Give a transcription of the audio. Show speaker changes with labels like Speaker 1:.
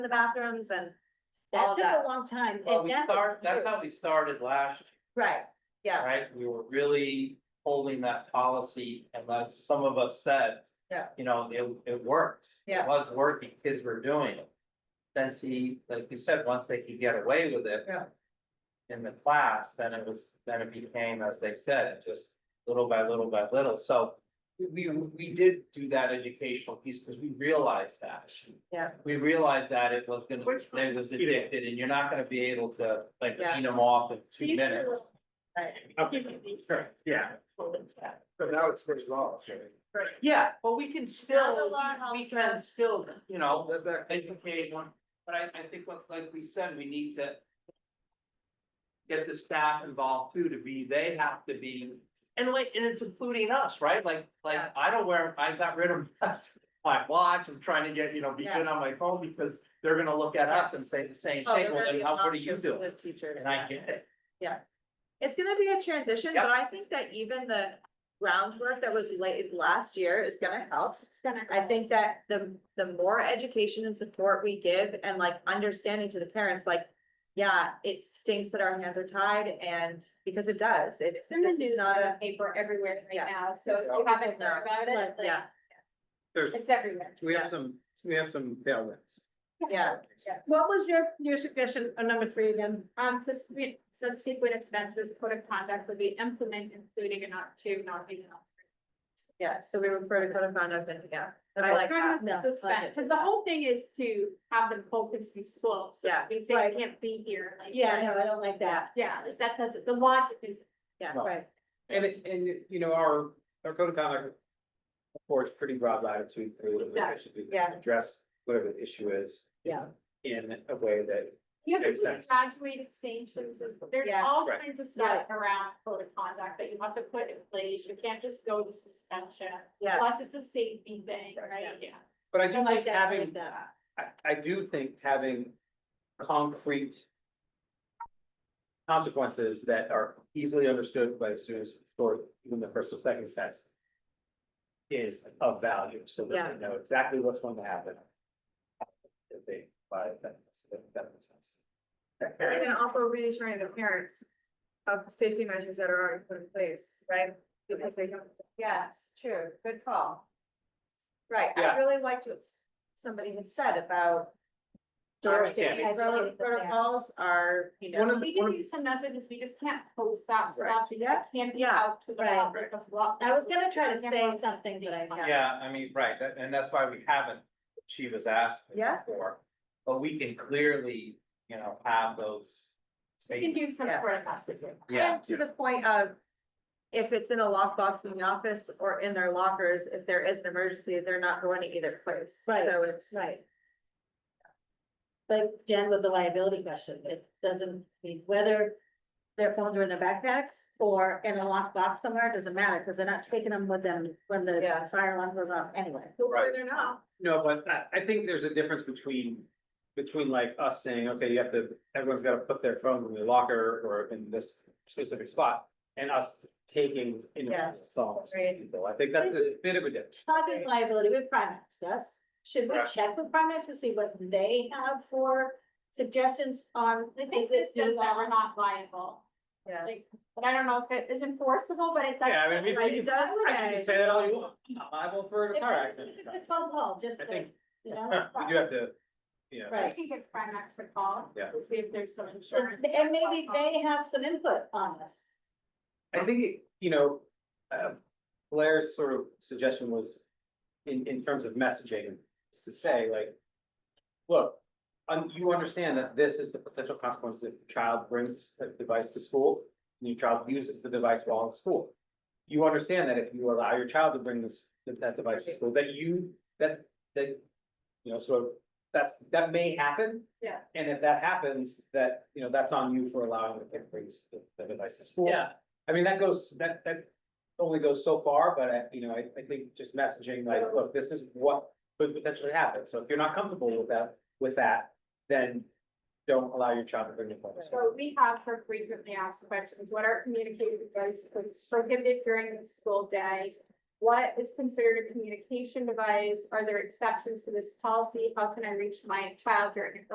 Speaker 1: bathrooms and
Speaker 2: All
Speaker 1: that took
Speaker 2: that.
Speaker 1: a long time.
Speaker 3: Well,
Speaker 1: and
Speaker 3: we
Speaker 1: that was
Speaker 3: start, that's how we
Speaker 1: years.
Speaker 3: started last,
Speaker 1: Right,
Speaker 3: year,
Speaker 1: yeah,
Speaker 3: right? We were really holding that policy unless some of us said.
Speaker 1: Yeah.
Speaker 3: You know, it, it worked.
Speaker 1: Yeah.
Speaker 3: It was working, kids were doing it. Then see, like you said, once they could get away with it.
Speaker 1: Yeah.
Speaker 3: In the class, then it was, then it became, as they said, just little by little by little, so. We, we did do that educational piece because we realized that.
Speaker 1: Yeah.
Speaker 3: We realized that it was gonna,
Speaker 2: Which
Speaker 3: it was addicted and you're not gonna be able to like
Speaker 1: Yeah.
Speaker 3: wean them off in two
Speaker 1: These are
Speaker 3: minutes.
Speaker 1: right,
Speaker 4: Sure, yeah.
Speaker 5: But now it stays off.
Speaker 1: right.
Speaker 3: Yeah, but we
Speaker 1: Not
Speaker 3: can
Speaker 1: a
Speaker 3: still,
Speaker 1: lot,
Speaker 3: we
Speaker 1: Howard.
Speaker 3: can still, you know,
Speaker 5: That back.
Speaker 3: educate one, but I, I think what, like we said, we need to. Get the staff involved too, to be, they have to be, and like, and it's including us, right? Like, like,
Speaker 1: Yeah.
Speaker 3: I don't wear, I got rid of my watch, I'm trying to get, you know, be good on my phone, because they're gonna look at us and say the same
Speaker 1: Oh, they're
Speaker 3: thing, well,
Speaker 1: gonna
Speaker 3: then
Speaker 1: be
Speaker 3: how, what are you
Speaker 1: obnoxious to
Speaker 3: doing?
Speaker 1: the Teachers.
Speaker 3: And I
Speaker 1: yeah.
Speaker 3: get it.
Speaker 1: It's gonna be a transition,
Speaker 3: Yeah.
Speaker 1: but I think that even the groundwork that was laid last year is gonna help. I think that the, the more education and support we give and like understanding to the parents, like, yeah, it stinks that our hands are tied and because it does, it's,
Speaker 6: It's in the
Speaker 1: this is
Speaker 6: news,
Speaker 1: not a.
Speaker 6: paper everywhere
Speaker 1: Yeah.
Speaker 6: right now, so if you haven't heard about it, like,
Speaker 1: Yeah,
Speaker 4: There's,
Speaker 6: it's everywhere.
Speaker 4: we have some, we have some tailwinds.
Speaker 1: yeah,
Speaker 2: What was your, your suggestion on number three again?
Speaker 6: Um, subsequent, subsequent offenses, code of conduct would be implement, including and not to, not being.
Speaker 1: yeah, so we refer to code of conduct and, yeah, I like that. No, like it.
Speaker 6: Cause the whole thing is to have them focused in school, so
Speaker 1: Yeah,
Speaker 6: they
Speaker 1: it's
Speaker 6: say
Speaker 1: like-
Speaker 6: you can't be here, like.
Speaker 1: no, I don't like that.
Speaker 6: Yeah, like that doesn't, the logic is
Speaker 1: Yeah,
Speaker 4: No.
Speaker 1: right,
Speaker 4: And, it- and, you know, our, our code of conduct. affords pretty broad latitude, for whatever the issue is,
Speaker 1: Yeah.
Speaker 4: address whatever the issue is.
Speaker 1: Yeah.
Speaker 4: In a way that,
Speaker 6: You have to
Speaker 4: Makes
Speaker 6: put
Speaker 4: sense.
Speaker 6: graduated sanctions, and there's
Speaker 1: Yes.
Speaker 6: all
Speaker 4: Right.
Speaker 6: kinds of stuff around code of conduct that you have to put in place, you can't just go to suspension.
Speaker 1: Yeah.
Speaker 6: Plus, it's a safety thing, right, yeah.
Speaker 4: but I do
Speaker 1: I like
Speaker 4: like
Speaker 1: that, I like
Speaker 4: having,
Speaker 1: that.
Speaker 4: I, I do think having concrete. Consequences that are easily understood by students for even the first or second test. Is of value, so that they know exactly what's going to happen. If they, by, that, that makes sense.
Speaker 7: And also reassuring the parents of safety measures that are already put in place, right? Because they don't.
Speaker 1: Yes, true, good call. Right, I
Speaker 4: Yeah.
Speaker 1: really liked what s- somebody had said about.
Speaker 4: Sure,
Speaker 1: Our
Speaker 4: I get
Speaker 1: safety
Speaker 6: it.
Speaker 1: pro- protocols are, you
Speaker 4: One
Speaker 1: know,
Speaker 4: of
Speaker 6: We
Speaker 4: the-
Speaker 6: can use some messages, we just can't post that
Speaker 4: Right.
Speaker 6: stuff, because
Speaker 1: Yeah.
Speaker 6: it can't be
Speaker 1: Yeah.
Speaker 6: out to the
Speaker 1: Right.
Speaker 6: public of what.
Speaker 1: I was gonna try to
Speaker 6: Yeah.
Speaker 1: say something, but I- yeah.
Speaker 3: Yeah, I mean, right, that- and that's why we haven't, she was asking
Speaker 1: Yeah.
Speaker 3: for, but we can clearly, you know, have those.
Speaker 6: We can
Speaker 3: statements.
Speaker 6: do some
Speaker 1: Yeah.
Speaker 6: sort of messaging.
Speaker 3: Yeah,
Speaker 1: and to the point of. If it's in a lockbox in the office or in their lockers, if there is an emergency, they're not going to either place,
Speaker 8: Right,
Speaker 1: so it's.
Speaker 8: Right. Like Jen with the liability question, it doesn't mean whether their phones are in their backpacks or in a locked box somewhere, it doesn't matter, because they're not taking them with them when the
Speaker 1: Yeah.
Speaker 8: fire alarm goes off anyway.
Speaker 7: Hopefully they're not.
Speaker 4: No, but I, I think there's a difference between, between like us saying, okay, you have to, everyone's gotta put their phone in the locker or in this specific spot. And us taking, you know,
Speaker 1: Yes,
Speaker 4: phones,
Speaker 1: agreed.
Speaker 4: people, I think that's a bit of a difference.
Speaker 8: Talking liability with Primex, yes, should we
Speaker 4: Right.
Speaker 8: check with Primex to see what they have for suggestions on?
Speaker 6: I think this
Speaker 8: new
Speaker 6: says that
Speaker 8: law?
Speaker 6: we're not liable.
Speaker 1: Yeah.
Speaker 6: Like, But I don't know if it is enforceable, but it does.
Speaker 4: Yeah, I mean, we-
Speaker 1: Like, it does
Speaker 4: I think you can
Speaker 1: say,
Speaker 4: say that all you want, I'm not liable for a
Speaker 8: If
Speaker 4: car
Speaker 8: it's-
Speaker 4: accident.
Speaker 8: if It's a phone call, just
Speaker 4: I
Speaker 8: to,
Speaker 4: think,
Speaker 8: you know.
Speaker 4: we do have to, you know.
Speaker 6: I
Speaker 8: Right.
Speaker 6: can give Primex a call.
Speaker 4: Yeah.
Speaker 6: to See if there's some insurance.
Speaker 8: And maybe they have some input on this.
Speaker 4: I think, it- you know, uh, Blair's sort of suggestion was in, in terms of messaging, is to say like, look, um, you understand that this is the potential consequences if the child brings the device to school and your child uses the device while in school. You understand that if you allow your child to bring this, that device to school, that you, that, that, you know, sort of, that's, that may happen.
Speaker 6: Yeah.
Speaker 4: And if that happens, that, you know, that's on you for allowing the kid to bring the- the device to school.
Speaker 3: yeah,
Speaker 4: I mean, that goes, that, that only goes so far, but I, you know, I, I think just messaging like, look, this is what could potentially happen. So if you're not comfortable with that, with that, then don't allow your child to bring your phone. to school.
Speaker 6: So we have for frequently asked questions, what are communicated devices prohibited during the school day? What is considered a communication device? Are there exceptions to this policy? How can I reach my child during a